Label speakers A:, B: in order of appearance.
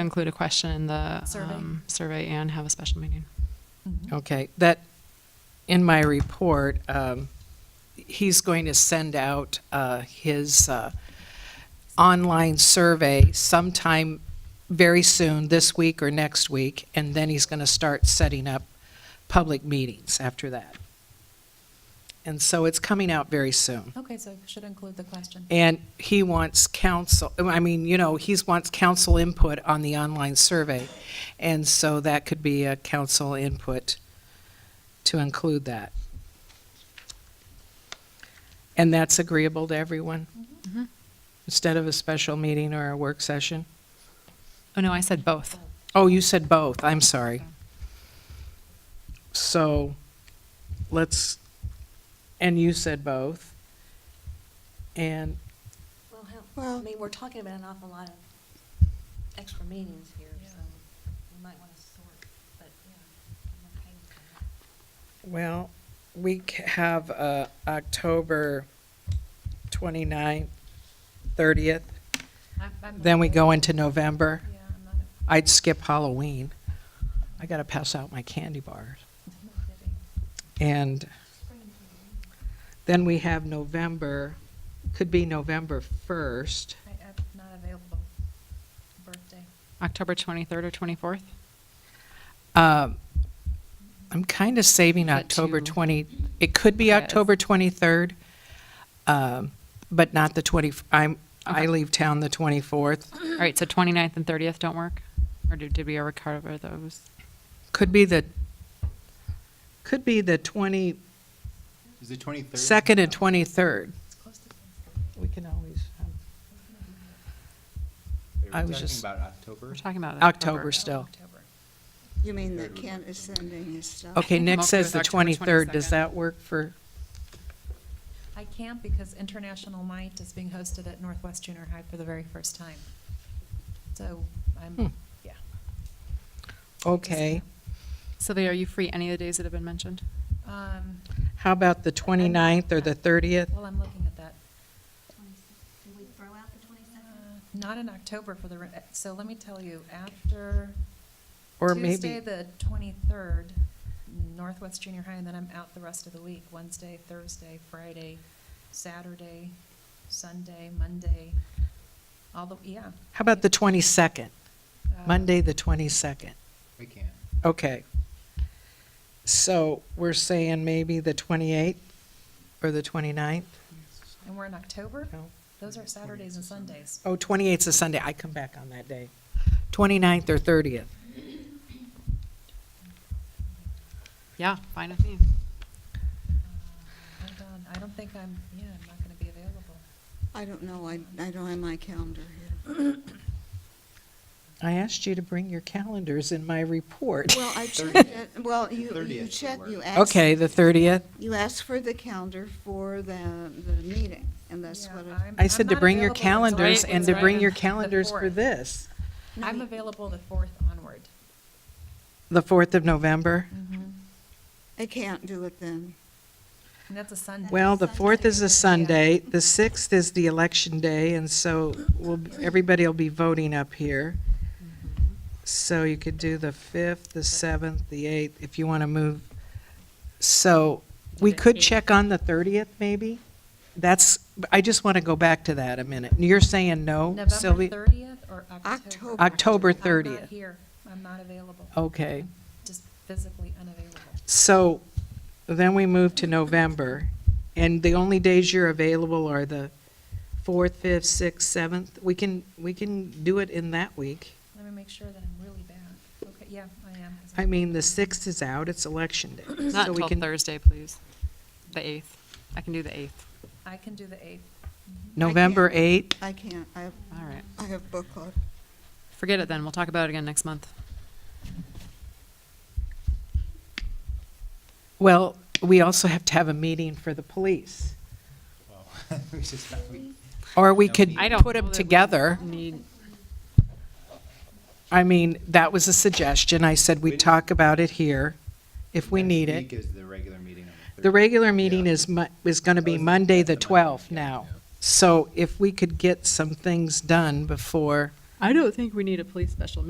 A: include a question in the
B: Survey.
A: um, survey and have a special meeting.
C: Okay, that, in my report, um, he's going to send out, uh, his, uh, online survey sometime very soon, this week or next week, and then he's gonna start setting up public meetings after that. And so it's coming out very soon.
B: Okay, so should include the question.
C: And he wants council, I mean, you know, he wants council input on the online survey. And so that could be a council input to include that. And that's agreeable to everyone? Instead of a special meeting or a work session?
A: Oh, no, I said both.
C: Oh, you said both, I'm sorry. So, let's, and you said both. And
D: Well, hell, I mean, we're talking about an awful lot of extra meetings here, so we might want to sort, but, yeah, I'm okay with
C: Well, we c- have uh, October 29th, 30th, then we go into November.
D: that. Yeah, I'm not, I'm
C: I'd skip Halloween. I got to pass out my candy bars.
D: not kidding.
C: And then we have November, could be November 1st.
D: I, I'm not available, birthday.
A: October 23rd or 24th?
C: Um, I'm kind of saving
A: Got
C: October
A: two.
C: 20, it could be
A: Yes.
C: October 23rd, um, but not the 20, I'm, I
A: Okay.
C: leave town the 24th.
A: All right, so 29th and 30th don't work? Or did did we ever cover those?
C: Could be the, could be the 22nd
E: Is it twenty-third?
C: and 23rd. We can always, um, I was just-
E: Talking about October?
A: We're talking about
C: October
A: October.
C: still.
F: You mean that Kent is sending his stuff?
C: Okay,
A: I'm
C: Nick
A: okay with
C: says the
A: October
C: 23rd. Does
A: 22nd.
C: that work for,
B: I can't because International Night is being hosted at Northwest Junior High for the very first time. So
C: Hmm.
B: I'm, yeah.
C: okay.
A: Sylvia, are you free any of the days that have been mentioned?
B: Um,
C: How about the 29th or the 30th?
B: Well, I'm looking at that.
F: Can we throw out the
B: Uh, Not in October for the, re- so let me tell you, after
C: Or
B: Tuesday,
C: maybe,
B: the 23rd, Northwest Junior High, and then I'm out the rest of the week, Wednesday, Thursday, Friday, Saturday, Sunday, Monday, all the, yeah.
C: how about the 22nd?
B: Uh,
C: Monday, the 22nd.
E: We can.
C: Okay. So we're saying maybe the 28th or the 29th?
B: And we're in October?
C: No.
B: Those are Saturdays and Sundays.
C: Oh, 28th's a Sunday. I come back on that day. 29th or 30th?
A: Yeah, fine with me.
B: I'm done. I don't think I'm, yeah, I'm not gonna be available.
F: I don't know, I, I don't have my calendar here.
C: I asked you to bring your calendars in my report.
F: Well, I checked it, well, you, you
E: 30th
F: check,
E: should
F: you
E: work.
F: asked.
C: Okay, the 30th.
F: You asked for the calendar for the, the meeting, and that's
B: Yeah,
F: what
B: I'm-
F: I.
C: I
B: I'm
C: said to
B: not
C: bring your
B: available until
C: calendars
A: Right,
C: and to bring your
B: the
C: calendars for
B: fourth.
C: this,
F: No,
B: I'm
F: you-
B: available the 4th onward.
C: the 4th of November.
F: Mm-hmm. I can't do it then.
B: And that's a Sunday.
C: Well, the 4th is a Sunday, the 6th is the election day, and so we'll, everybody will be voting up here.
A: Mm-hmm.
C: So you could do the 5th, the 7th, the 8th, if you want to move. So we could check on the 30th, maybe? That's, I just want to go back to that a minute. You're saying no,
B: November
C: Sylvia?
B: 30th or October?
C: October Oh.
F: October.
B: I'm not
C: 30th.
B: here. I'm not available.
C: Okay.
B: I'm Just physically unavailable.
C: So then we move to November, and the only days you're available are the 4th, 5th, 6th, 7th. We can, we can do it in that week.
B: Let me make sure that I'm really bad. Okay, yeah, I am. 'cause
C: I
B: I'm-
C: mean, the 6th is out, it's election day.
A: Not
C: so we
A: until
C: can
A: Thursday, please. The 8th. I can do the 8th.
B: I can do the 8th.
C: November 8th,
F: I can't, I have,
A: All right.
F: I have book club.
A: Forget it then. We'll talk about it again next month.
C: well, we also have to have a meeting for the police.
E: Well, we just, we,
C: Or we could
A: I don't
C: put
A: know that
C: them
A: we
C: together.
A: Need,
C: I mean, that was a suggestion. I said we'd talk about it here if we
E: next
C: need it.
E: Week is the regular meeting on the 30th.
C: The regular meeting
E: Yeah.
C: is, Mon- is going to
E: Oh,
C: be
E: is it?
C: Monday, the
E: That's the Monday,
C: 12th
E: yeah,
C: now.
E: yeah.
C: So if we could get some things done before
A: I don't think we need a police special